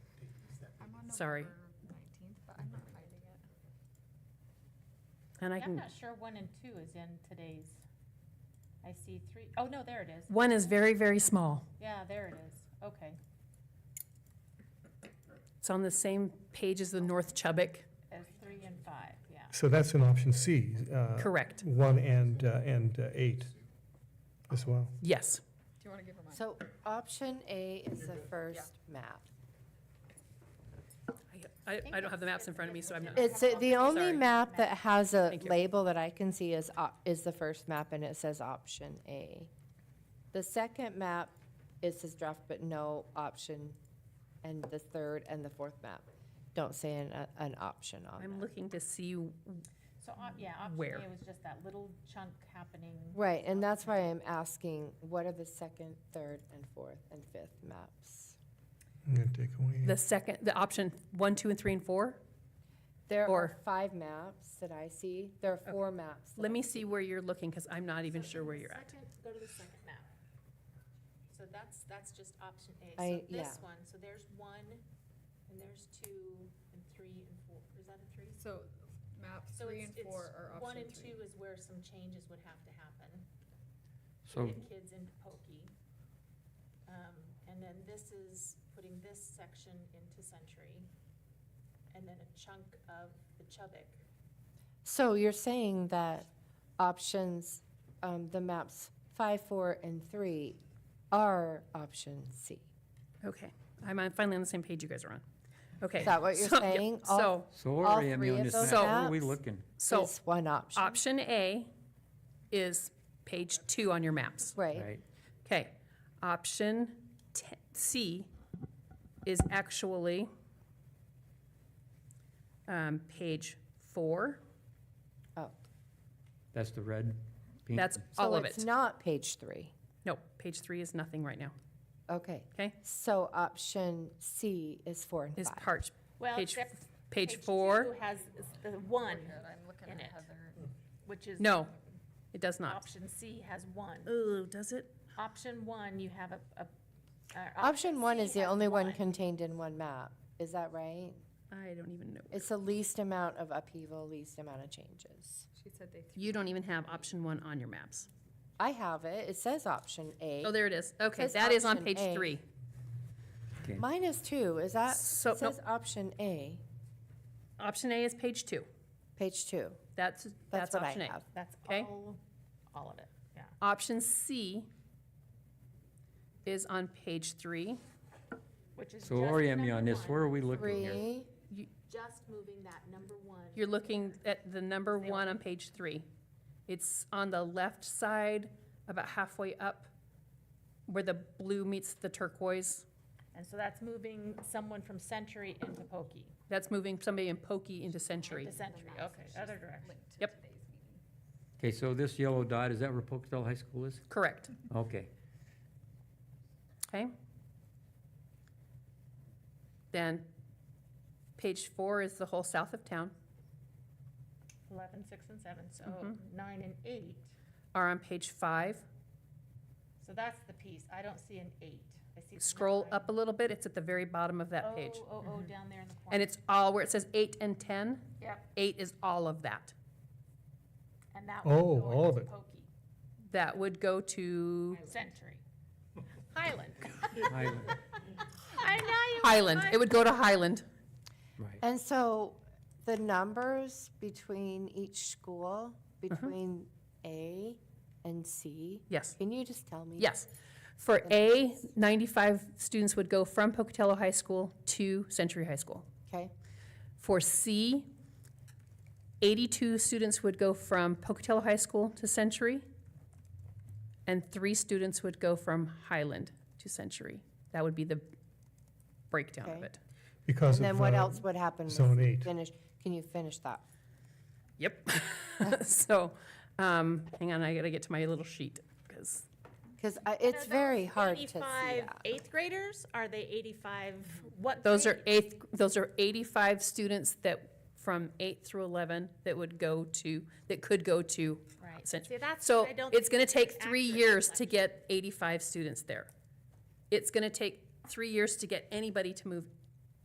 Sorry. November 19th, but I'm not finding it. And I I'm can, not sure one and two is in today's, I see three, oh, no, there it is. one is very, very small. Yeah, there it is, okay. It's on the same page as the North Chubbuck. As three and five, yeah. So that's in option C. uh, Correct. One and, uh, and uh, eight as well. Yes. Do you want to give her mine? So option A is the first map. I, think I don't have the maps it's- in it's- front of me, it's so I'm legit. not. It's, uh, the only Sorry. map that has a Thank you. label that I can see is, op- is the first map, and it says option A. The second map, it says draft, but no option, and the third and the fourth map don't say an, an option on I'm them. looking to see, So, op- yeah, option Where? A was just that little chunk happening. Right, and that's why I'm asking, what are the second, third, and fourth, and fifth maps? I'm going to take the away. second, the option one, two, and three, and four. There Or- are five maps that I see. There are four maps. that Let I me see where you're looking, because I'm not even sure where you're at. Go to the second map. So that's, that's just option A. So I- this yeah. one, so there's one, and there's two, and three, and four, is that a three? So map So three it's- and it's four are One option and three. two is where some changes would have to happen. So, Get kids into pokey. Um, and then this is putting this section into Century. And then a chunk of the Chubbuck. So you're saying that options, um, the maps five, four, and three are option C? Okay, I'm on- finally on the same page you guys are on. Okay. Is that what you're So- yeah, saying? All- So, so where All are three we on of this those map? Where are we maps? looking? so It's one option, option A is page two on your maps. right? Right, Okay, option te- C is actually um, page four. Oh, that's the red. pink. That's all so of it's it. not page three. No, page three is nothing right now, Okay, okay? so option C is four and Is five. part, Well, page, except page four? two Has the one, Good, I'm looking in at it. Heather. which is. No, it does not. Option C has one. Oh, does it? Option one, you have a, a. uh, Option one C is the has only one contained in one map, is that right? I don't even know. It's the least amount of upheaval, least amount of changes. She said they threw. You don't even have option one on your maps. I have it, it says option A. Oh, there it is. Okay, Says that is on option page A. three. Okay. Mine is two, is that, it So- says option A, Option A is page two. page two. That's, That's that's what I option A. have. That's Okay. all, all of it, yeah. Option C is on page three. Which is So just orient me number on this, one, where are we looking here? Three, Just moving that number one. You're looking at the number one on page three. It's on the left side, about halfway up, where the blue meets the turquoise. And so that's moving someone from Century into Pokey. That's moving somebody in pokey into century. Into Century, okay, other direction. linked to Yep. today's meeting. Okay, so this yellow dot, is that where Pocatello High School is? Correct, Okay, okay? Then, page four is the whole south of town, Eleven, six, and seven, so Mhm. nine and eight. are on page five. So that's the piece. I don't see an eight. I see. the Scroll nine. up a little bit, it's at the very bottom of that page. Mm-hmm. Oh, oh, oh, down there in the corner. And it's all where it says eight and 10. Yep. Eight is all of that. And that Oh, would all go of into it. Pokey, That would go to Century. Highland. Highland, I know you. Highland. It would go to Highland. right. and so the numbers between each school, Mm-hmm. between A and C, Yes, can you just tell me? yes. For A, 95 students would go from Pocatello High School to Century High School. Okay, For C, 82 students would go from Pocatello High School to Century, and three students would go from Highland to Century. That would be the breakdown of Okay. it. Because and of. then what uh, else would happen? with zone eight. Finish, can you finish that? Yep. so, um, hang on, I gotta get to my little sheet, because Because it's very hard to see that. Eighth graders, are they eighty-five? What? those are grade? eighth, those are eighty-five students that, from eight through eleven, that would go to, that could go to. Right. Cent- See, that's So what I don't it's gonna take think is three accurate years to reflection. get eighty-five students there. It's gonna take three years to get anybody to move